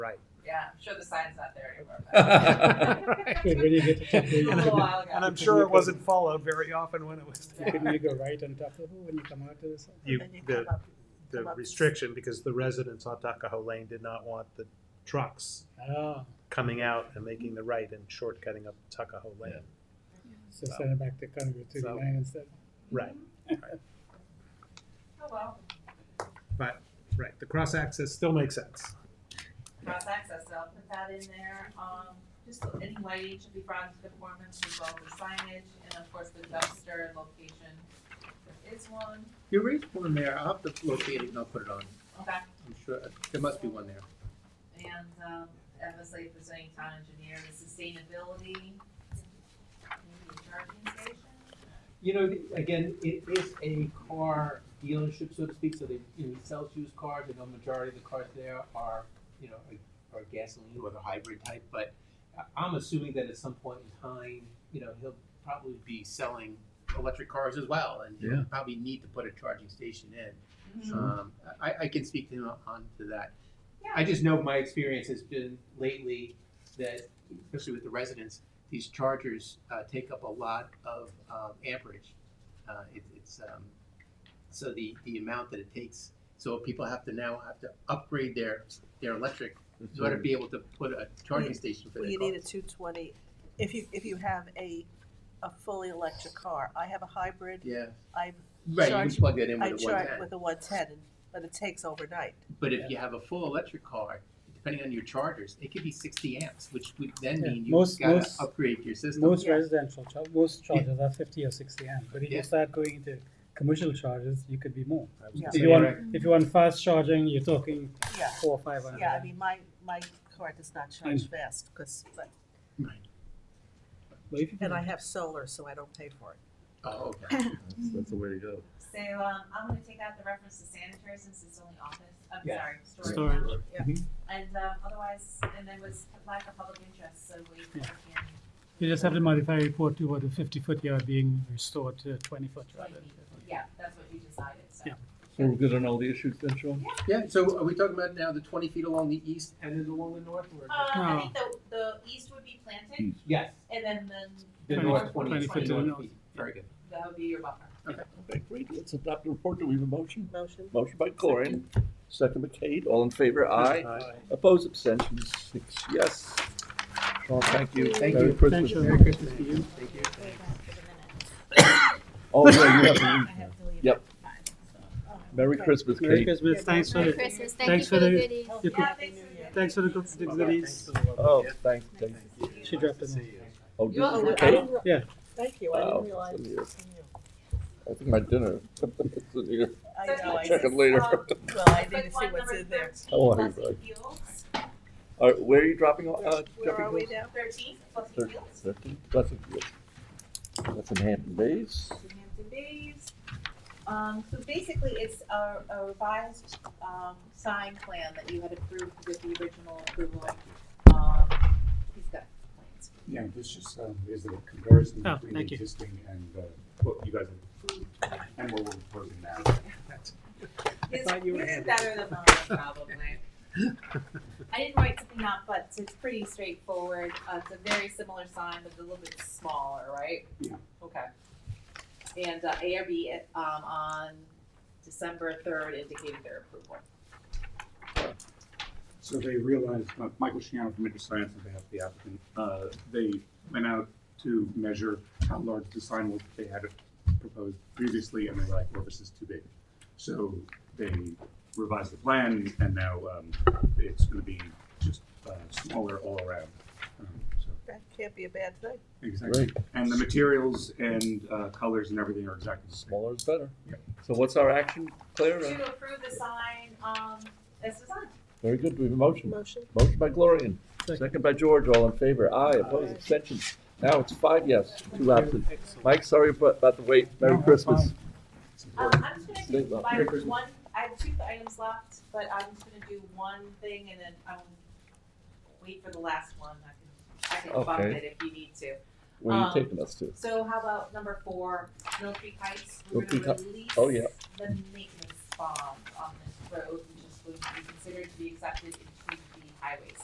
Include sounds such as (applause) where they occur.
Yeah, I'm sure the sign's not there anymore. Good, when you get to top, It was a little when while ago. And I'm sure it wasn't followed very often when it was there. you go right on top of it, when you come out to this. You, Then you the, come Oh, up- the come up- restriction, because the residents on Tuckahoe Lane did not want the trucks Ah, coming out and making the right and shortcutting up Tuckahoe Lane. so send it back to Congress to the So- line instead. Right, Oh, well, right. The cross access still makes sense. cross access, so I'll put that in there. Um, just any lighting should be brought into conformance as well as the signage, and of course the dumpster location. There is one, You raised one there, I'll have to locate it and I'll put it on, okay, I'm sure, there must be one there. and, um, obviously if there's any town engineer, the sustainability, maybe a charging station? You know, the- again, it is a car dealership, so to speak, so they, you know, he sells used cars, and the majority of the cars there are, you know, are- are gasoline or the hybrid type, but I- I'm assuming that at some point in time, you know, he'll probably be selling electric cars as well, and he'll probably need to put a charging station in. Mm-hmm. Um, I, I can speak to him on to that. I just know my experience has been lately that, especially with the residents, these chargers, uh, take up a lot of, um, amperage. Uh, it, it's, um, so the, the amount that it takes, so people have to now have to upgrade their, their electric in order to be able to put a charging station for Mm-hmm. Well, their Mm-hmm. you need a cars. two twenty, if you, if you have a, a fully electric car, I have a hybrid, Yeah, I, right, you Charge- can plug that in I with a one charge ten. with a one ten, but it takes overnight. But if you have a full electric car, depending on your chargers, it could be sixty amps, which would then Yeah, mean most- you've gotta most- upgrade your system. Most Yeah. residential, char- most chargers are fifty or sixty amp, but if you Yeah. start going into commercial charges, you could be more. I was gonna If say, you want, Correct. if you want fast charging, you're talking Yeah. four, or five hundred. Yeah, I mean, my, my car does not charge Mm. fast, cause, but, But if you and I can, have solar, so I don't pay for it. Oh, okay. That's the way to go. So, um, I'm gonna take out the reference to sanitary since it's only office, I'm Yeah. sorry, storage. Storage. now. Yeah. Mm-hmm. And, um, otherwise, and there was lack of public interest, so we we Yeah. can. you just have to modify report to what the fifty foot yard being restored to twenty foot rather. than 50. Yeah, that's what you decided, so. Yeah. So we're good on all the issues then, Sean? Yeah, so are we talking about now the twenty feet along the east and then along the north or? Uh, I No. think the, the east would be Hmm. planted, Yes, and then, then the Twenty- north, twenty, twenty twenty feet to the north north. feet, very good. that would be your buffer. Okay, great. Let's adopt the report. Do we have a motion? Motion? Motion by Corin, second by Kate. All in favor? Aye. Aye. Opposed, abstentions, six yes. Sean, thank you. Thank Merry you. Christmas. Merry Christmas to you. Thank you. Oh, yeah, you have to leave. I have to leave. Yep. Merry Okay. Christmas, Merry Kate. Christmas, thanks for Merry the, Christmas, thank you Thanks for for the the- goodies. you could, Yeah, thanks for the. thanks for the good the goodies. Oh, thanks, thanks. She dropped it. Oh, this Oh, is for no, I Kate? didn't re- Yeah. Thank you, I didn't Wow, realize it's in it was from you. I think my dinner. It's in here. I So know, I this Check didn't, it is, later. (laughs) um, well, I Quick didn't see one, what's number in there. thirteen, How are you, fuzzy bud? fuels, All right, where are you dropping, off- uh, Where are we jumping? now? thirteen, fuzzy Thirteen. fuels, Thirteen, that's, that's in Hampton Bays. the Hampton Bays. Um, so basically, it's a, a revised, um, sign plan that you had approved with the original approval. Um, he's got plans. Yeah, this just, um, is a comparison Oh, between the thank you. existing and, uh, what you guys have approved and what we're proposing now. His, thought you were his is Andy. better than mine, (laughs) probably. I didn't write something out, but it's pretty straightforward. Uh, it's a very similar sign, but a little bit smaller, right? Yeah. Okay. And uh, ARB um, on December third indicated their approval. So they realized, uh, Michael Shiano from InterScience on behalf of the applicant, uh, they went out to measure how large the sign was that they had proposed previously, and they were like, well, this is too big. So they revised the plan, and now, um, it's gonna be just, uh, smaller all around. Um, so That can't be a bad thing. Exactly. Great, And the materials and, uh, colors and everything are exactly the same. smaller is better. Yep. So what's our action, Claire? To approve the sign, um, this is on. Very good, we have a motion. Motion? Motion by Gloria, Second. second by George, all in favor, aye, opposed, abstentions. Now it's five yes, two absent. Mike, sorry about about the wait, No, Merry that's Christmas. Um, I'm just gonna Great do luck. my Merry Christmas. one, I have two items left, but I'm just gonna do one thing and then I'll wait for the last one. I can, I can bump Okay. it if you need to. Where are you Um, taking us to? So how about number four, Mill Creek Heights, Mill we're Creek gonna Heights. release Oh, yeah. the maintenance bond on this road, which is going to be considered to be accepted into the highways.